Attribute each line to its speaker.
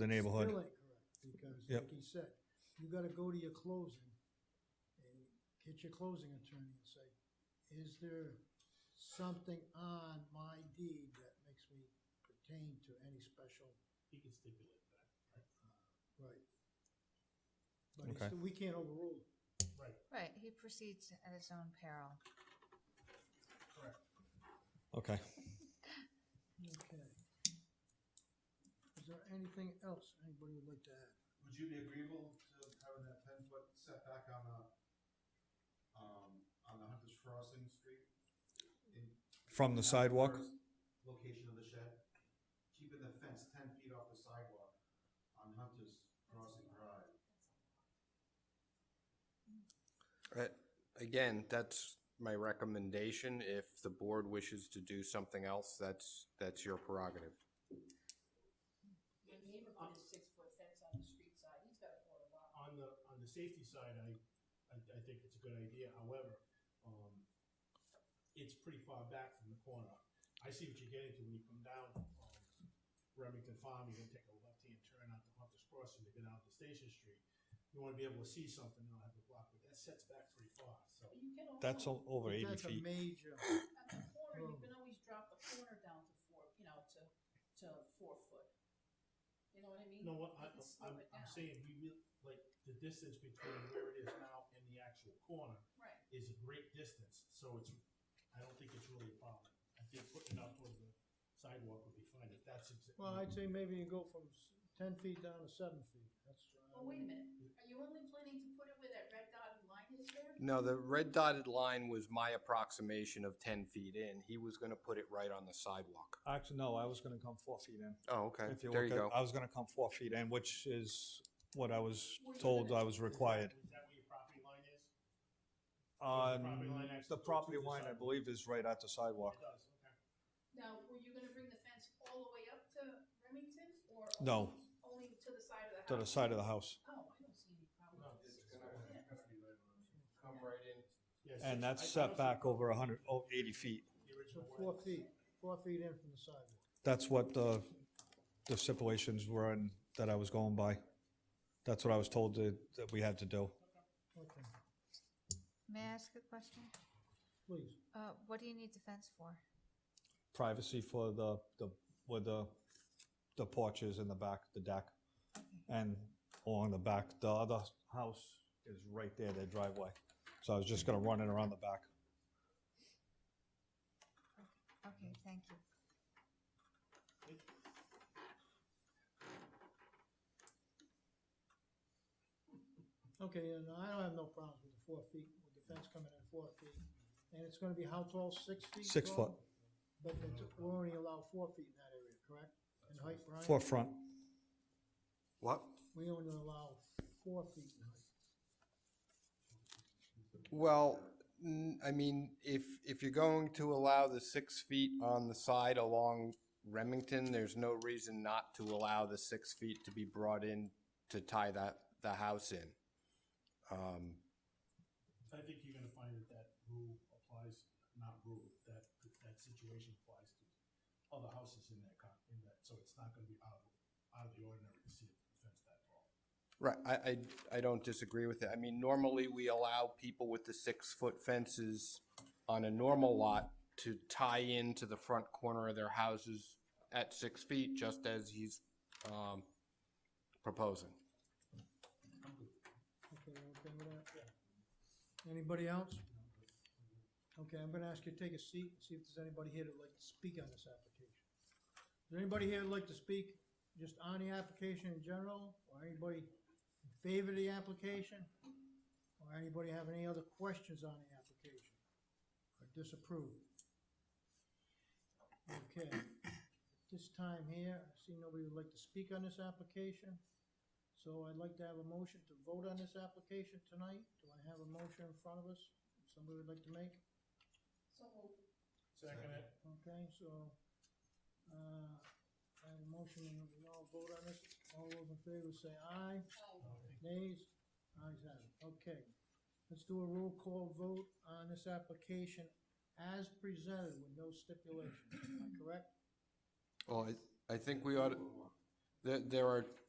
Speaker 1: the neighborhood.
Speaker 2: Still ain't correct, because
Speaker 1: Yep.
Speaker 2: like he said, you gotta go to your closing and get your closing attorney and say, is there something on my deed that makes me pertain to any special Uh,
Speaker 3: He can stipulate that.
Speaker 2: right? But he
Speaker 1: Okay.
Speaker 2: still- we can't overrule it.
Speaker 3: Right,
Speaker 4: Right, he proceeds at his own peril.
Speaker 3: correct.
Speaker 1: Okay.
Speaker 2: Okay. Is there anything else anybody would like to add?
Speaker 5: Would you be agreeable to having that ten foot setback on the, um, on the Hunter's Crossing Street? In-
Speaker 1: From the sidewalk?
Speaker 5: Location of the shed, keeping the fence ten feet off the sidewalk on Hunter's Crossing Drive.
Speaker 6: Uh, Again, that's my recommendation. If the board wishes to do something else, that's, that's your prerogative.
Speaker 7: Your neighbor put a six-foot fence on the street side, he's got a corner lot.
Speaker 3: On the, on the safety side, I, I, I think it's a good idea, however, um, it's pretty far back from the corner. I see what you're getting to when you come down, um, Remington Farm, you're gonna take a left-hand turn out to Hunter's Crossing to get out to Station Street. You wanna be able to see something, you don't have to block, but that sets back pretty far, so.
Speaker 7: But you can also.
Speaker 1: That's o- over eighty
Speaker 2: That's a
Speaker 1: feet.
Speaker 2: major,
Speaker 7: At the corner,
Speaker 2: Oh.
Speaker 7: you can always drop the corner down to four, you know, to, to four foot. You know what I mean?
Speaker 3: You know what,
Speaker 7: You
Speaker 3: I,
Speaker 7: can slow
Speaker 3: I'm,
Speaker 7: it
Speaker 3: I'm
Speaker 7: down.
Speaker 3: saying, we really, like, the distance between where it is now and the actual corner
Speaker 7: Right,
Speaker 3: is a great distance, so it's, I don't think it's really a problem. I think putting it out towards the sidewalk would be fine, if that's. exa-
Speaker 2: well, I'd say maybe you go from s- ten feet down to seven feet, that's.
Speaker 7: well, wait a minute, are you only planning to put it where that red dotted line is there?
Speaker 6: No, the red dotted line was my approximation of ten feet in. He was gonna put it right on the sidewalk.
Speaker 1: Actually, no, I was gonna come four feet in.
Speaker 6: Oh, okay.
Speaker 1: If you
Speaker 6: There
Speaker 1: look
Speaker 6: you
Speaker 1: at-
Speaker 6: go.
Speaker 1: I was gonna come four feet in, which is what I was
Speaker 7: Were you
Speaker 1: told
Speaker 7: gonna-
Speaker 1: I was required.
Speaker 3: Is that where your property line is? property
Speaker 1: On
Speaker 3: line actually
Speaker 1: the
Speaker 3: goes
Speaker 1: property
Speaker 3: to the
Speaker 1: line, I
Speaker 3: sidewalk.
Speaker 1: believe, is right at the sidewalk.
Speaker 3: It does, okay.
Speaker 7: Now, were you gonna bring the fence all the way up to Remington, or?
Speaker 1: No.
Speaker 7: Only only to the side of the house?
Speaker 1: To the side of the house.
Speaker 7: Oh, I don't see any problem.
Speaker 3: No,
Speaker 7: with
Speaker 5: It's
Speaker 7: this.
Speaker 5: gonna, it's gonna be right on.
Speaker 6: Come right in.
Speaker 3: Yeah, so
Speaker 1: And that's
Speaker 3: I- I
Speaker 1: set
Speaker 3: don't
Speaker 1: back over a hundred, oh, eighty feet.
Speaker 3: see The original
Speaker 2: So four
Speaker 3: one.
Speaker 2: feet, four feet in from the sidewalk.
Speaker 1: That's what the, the stipulations were and that I was going by. That's what I was told that, that we had to do.
Speaker 2: Okay,
Speaker 4: May I ask a question?
Speaker 2: please.
Speaker 4: Uh, what do you need the fence for?
Speaker 1: Privacy for the, the, where the, the porch is in the back, the deck. And along the back, the other house is right there, their driveway. So I was just gonna run it around the back.
Speaker 4: Okay, thank you.
Speaker 2: Okay, and I don't have no problems with the four feet, with the fence coming in four feet. And it's gonna be how tall, six feet?
Speaker 1: Six
Speaker 2: tall?
Speaker 1: foot.
Speaker 2: But it's, we only allow four feet in that area, correct? In height, Brian?
Speaker 1: Forefront,
Speaker 6: What?
Speaker 2: We only allow four feet in height.
Speaker 6: Well, n- I mean, if, if you're going to allow the six feet on the side along Remington, there's no reason not to allow the six feet to be brought in to tie that, the house in. Um,
Speaker 3: I think you're gonna find that that rule applies, not rule, that, that situation applies to other houses in that, con- in that, so it's not gonna be out of, out of the ordinary to see a fence that tall.
Speaker 6: Right, I, I, I don't disagree with it. I mean, normally we allow people with the six-foot fences on a normal lot to tie into the front corner of their houses at six feet, just as he's, um, proposing.
Speaker 2: Okay, you okay with that? Anybody else? Okay, I'm gonna ask you to take a seat, and see if there's anybody here that'd like to speak on this application. Is there anybody here that'd like to speak just on the application in general, or anybody in favor of the application? Or anybody have any other questions on the application, or disapprove? Okay, at this time here, I see nobody would like to speak on this application. So I'd like to have a motion to vote on this application tonight. Do I have a motion in front of us? Somebody would like to make?
Speaker 7: So moved.
Speaker 3: Second it.
Speaker 2: Okay, so, uh, I have a motion and we all vote on this. All those in favor say aye.
Speaker 7: Oh,
Speaker 2: Nays? Ayes have it. Okay. Let's do a roll call vote on this application as presented with no stipulations. Am I correct?
Speaker 6: Well, I, I think we ought, to- there, there are